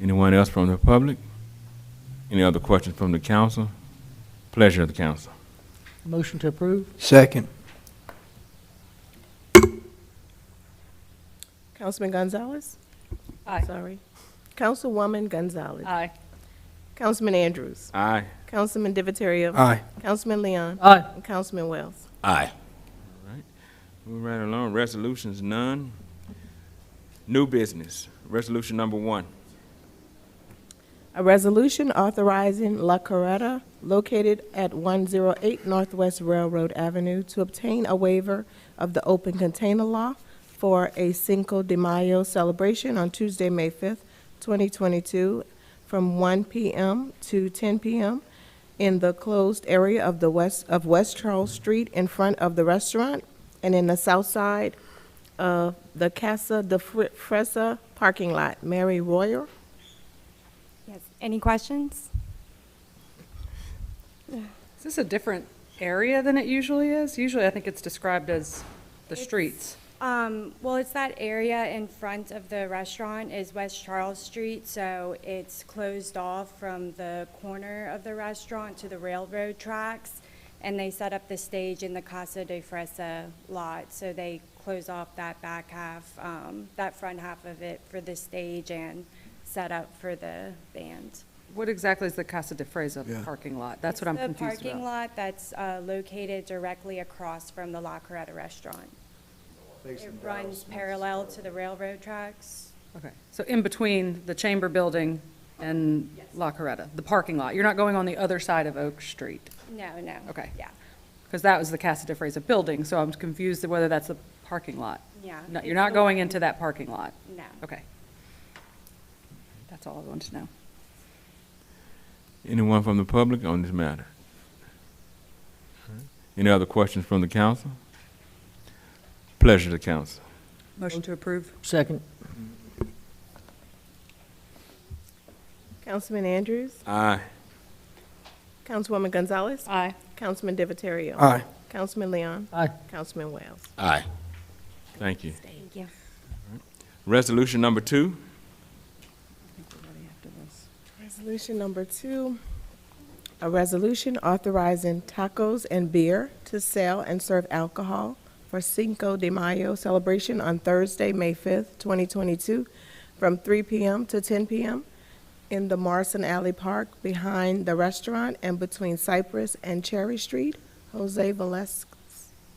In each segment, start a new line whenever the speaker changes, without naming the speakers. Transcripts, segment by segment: Anyone else from the public? Any other questions from the council? Pleasure of the council.
Motion to approve?
Second.
Councilman Gonzalez?
Aye.
Sorry. Councilwoman Gonzalez?
Aye.
Councilman Andrews?
Aye.
Councilman Divatario?
Aye.
Councilman Leon?
Aye.
And Councilman Wells?
Aye.
Move right along. Resolutions, none. New business. Resolution number one.
A resolution authorizing La Carreta, located at 108 Northwest Railroad Avenue, to obtain a waiver of the open container law for a Cinco de Mayo celebration on Tuesday, May 5th, 2022, from 1 p.m. to 10 p.m. in the closed area of the west, of West Charles Street in front of the restaurant and in the south side of the Casa de Fre- Fresa parking lot. Mary Royer.
Yes, any questions?
Is this a different area than it usually is? Usually, I think it's described as the
It's-
streets.
Um, well, it's that area in front of the restaurant is West Charles Street, so it's closed off from the corner of the restaurant to the railroad tracks. And they set up the stage in the Casa de Fresa lot, so they close off that back half, um, that front half of it for the stage and set up for the band.
What exactly is the Casa de
Yeah.
Fresa parking lot? That's what I'm
It's
confused
The parking
about.
lot that's uh, located directly across from the La Carreta Restaurant. It runs parallel to the railroad tracks.
Okay, so in between the Chamber Building and La Coretta, the parking lot. You're not going on the other side of Oak Street,
No, no.
Okay.
Yeah,
because that was the Casa de Fresa building, so I'm confused whether that's the parking lot.
Yeah.
No, you're not going into that parking lot.
no.
Okay. That's all I wanted to know.
Anyone from the public on this matter? Any other questions from the council? Pleasure of the council.
Motion to approve?
Second.
Councilman Andrews?
Aye.
Councilwoman Gonzalez?
Aye.
Councilman Divatario?
Aye.
Councilman Leon?
Aye.
Councilman Wells?
Aye.
Thank you.
Thank you.
Resolution number two.
Resolution number two, a resolution authorizing tacos and beer to sell and serve alcohol for Cinco de Mayo celebration on Thursday, May 5th, 2022, from 3 p.m. to 10 p.m. in the Morrison Alley Park behind the restaurant and between Cypress and Cherry Street. Jose Vales-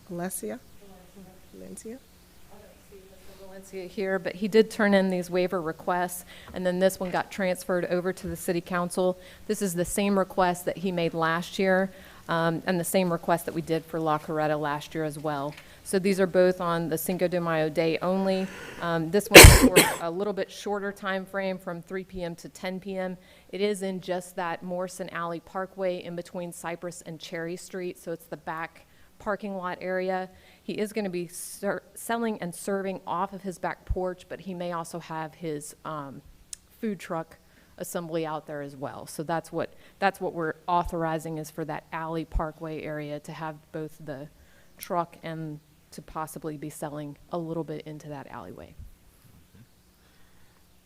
Valencia? Valencia?
Valencia here, but he did turn in these waiver requests, and then this one got transferred over to the city council. This is the same request that he made last year, um, and the same request that we did for La Coretta last year as well. So these are both on the Cinco de Mayo day only. Um, This one is for a little bit shorter time frame, from 3 PM to 10 PM. It is in just that Morrison Alley Parkway in between Cypress and Cherry Street, so it's the back parking lot area. He is going to be ser- selling and serving off of his back porch, but he may also have his um, food truck assembly out there as well. So that's what, that's what we're authorizing is for that alley parkway area to have both the truck and to possibly be selling a little bit into that alleyway.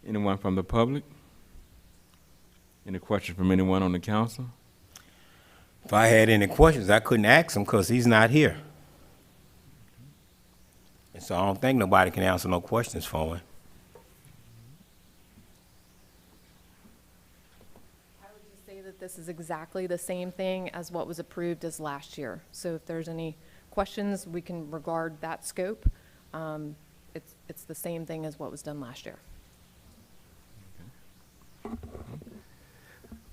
Anyone from the public? Any questions from anyone on the council?
If I had any questions, I couldn't ask him because he's not here. And so I don't think nobody can answer no questions for him.
I would just say that this is exactly the same thing as what was approved as last year. So if there's any questions, we can regard that scope. Um, It's, it's the same thing as what was done last year.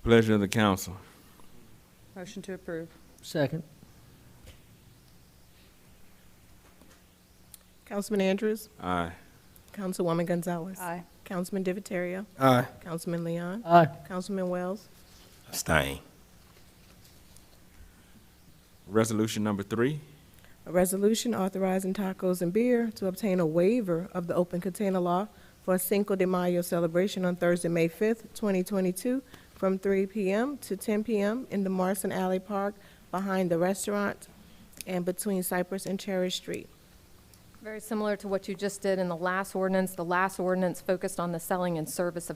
Pleasure of the council.
Motion to approve?
Second.
Councilman Andrews?
Aye.
Councilwoman Gonzalez?
Aye.
Councilman Divatario?
Aye.
Councilman Leon?
Aye.
Councilman Wells?
Abstain.
Resolution number three.
A resolution authorizing tacos and beer to obtain a waiver of the open container law for Cinco de Mayo celebration on Thursday, May 5th, 2022, from 3 p.m. to 10 p.m. in the Morrison Alley Park behind the restaurant and between Cypress and Cherry Street.
Very similar to what you just did in the last ordinance. The last ordinance focused on the selling and service of